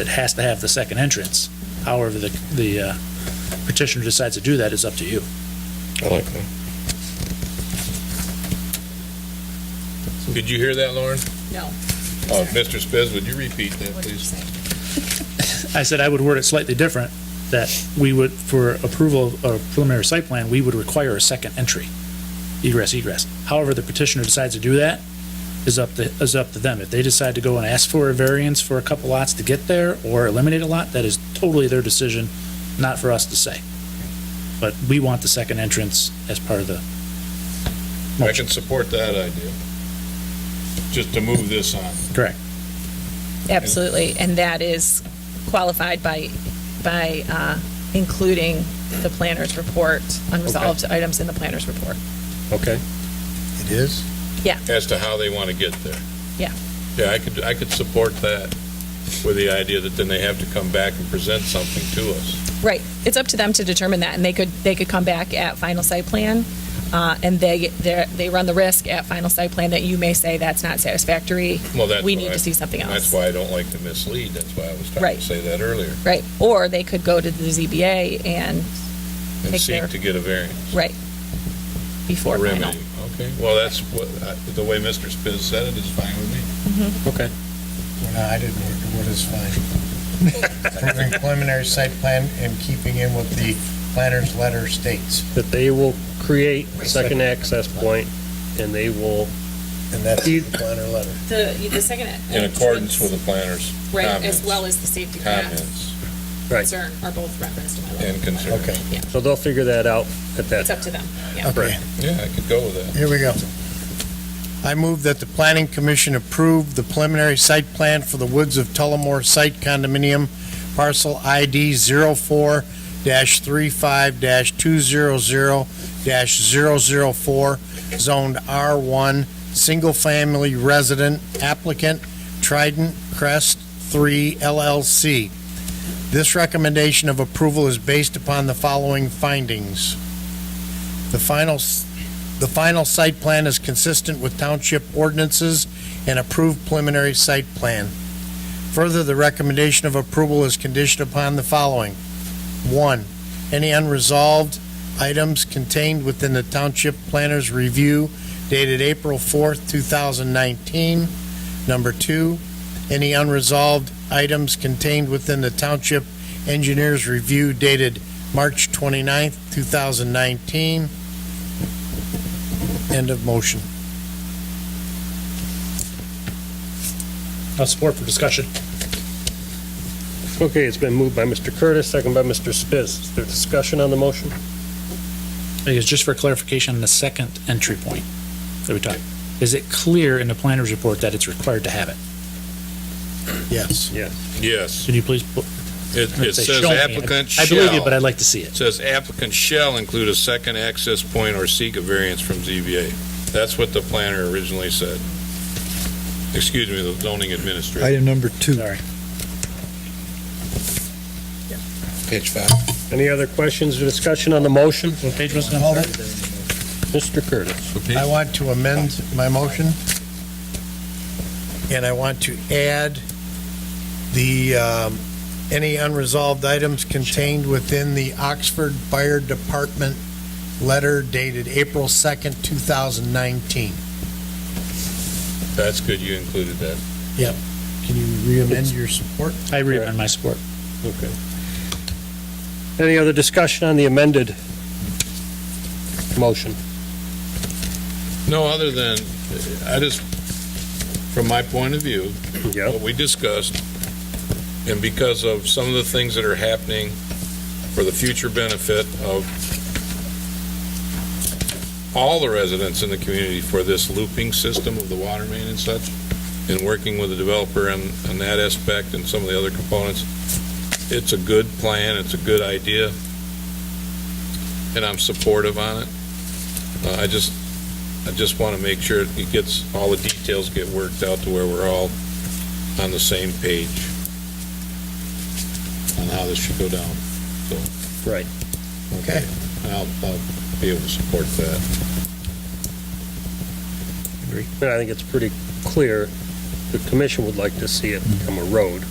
it has to have the second entrance. However, the, the uh, petitioner decides to do that is up to you. I like that. Did you hear that, Lauren? No. Oh, Mr. Spiz, would you repeat that, What did you please? say? I said I would word it slightly different, that we would, for approval of a preliminary site plan, we would require a second entry, egress, egress. However, the petitioner decides to do that is up to, is up to them. If they decide to go and ask for a variance for a couple lots to get there or eliminate a lot, that is totally their decision, not for us to say. But we want the second entrance as part of the I can support that idea. Just to move this on. Absolutely, and that is qualified by, by uh, including the planner's report, unresolved items in the planner's report. Okay. It is? as to how they want to get there. Yeah. Yeah, I could, I could support that with the idea that then they have to come back and present something to us. Right, it's up to them to determine that, and they could, they could come back at final site plan, uh, and they, they're- they run the risk at final site plan that you may say that's not satisfactory, Well, that's we why- need to see something That's else. why I don't like to mislead. That's why I was trying Right. to say that earlier. Right, or they could go to the ZBA and, And Take care. seek to get a variance, right, a before final. remedy. Okay, well, that's what, I- the way Mr. Spiz said it is fine with me. Well, No, I didn't hear it. What is fine? Approving preliminary site plan and keeping in with the planner's letter states. That they will create a second access point and they will, And that's the planner letter. The, the second. In accordance with the planner's Right, comments, as well as the safety path comments right, concern are both referenced in my letter. and concerns. Okay, so they'll figure that out at that. It's up to them. okay, Yeah, I could go with that. here we go. I move that the planning commission approve the preliminary site plan for the Woods of Tullamore Site Condominium, parcel ID 04-35-200-004, zoned R1, single-family resident applicant Trident Crest 3 LLC. This recommendation of approval is based upon the following findings. The final s- the final site plan is consistent with township ordinances and approved preliminary site plan. Further, the recommendation of approval is conditioned upon the following. One, any unresolved items contained within the township planner's review dated April 4th, 2019. Number two, any unresolved items contained within the township engineer's review dated March 29th, 2019. End of motion. I'll support for discussion. Okay, it's been moved by Mr. Curtis, second by Mr. Spiz. Is there discussion on the motion? Because just for clarification, the second entry point that we talked, is it clear in the planner's report that it's required to have it? Yes. Yes. Yes, Can you please? put- it I'm gonna it say says show me. I- applicant I believe you, shall. but I'd like to see it. It says applicant shall include a second access point or seek a variance from ZBA. That's what the planner originally said. Excuse me, the zoning administrator. Item number two. Sorry. Page five. Any other questions or discussion on the motion? What page was it? Hold it. Mr. Curtis. I want to amend my motion, and I want to add the, um, any unresolved items contained within the Oxford Fire Department letter dated April 2nd, 2019. That's good you included that. Can you re-amend your support? I reamend my support. Okay. Any other discussion on the amended motion? No, other than, I just, from my point of view, Yeah. what we discussed, and because of some of the things that are happening for the future benefit of all the residents in the community for this looping system of the water main and such, and working with the developer on, on that aspect and some of the other components, it's a good plan, it's a good idea, and I'm supportive on it. Uh, I just, I just want to make sure it gets, all the details get worked out to where we're all on the same page on how this should go down. Right. Okay. And I'll, I'll be able to support that. And I think it's pretty clear the commission would like to see it become a road.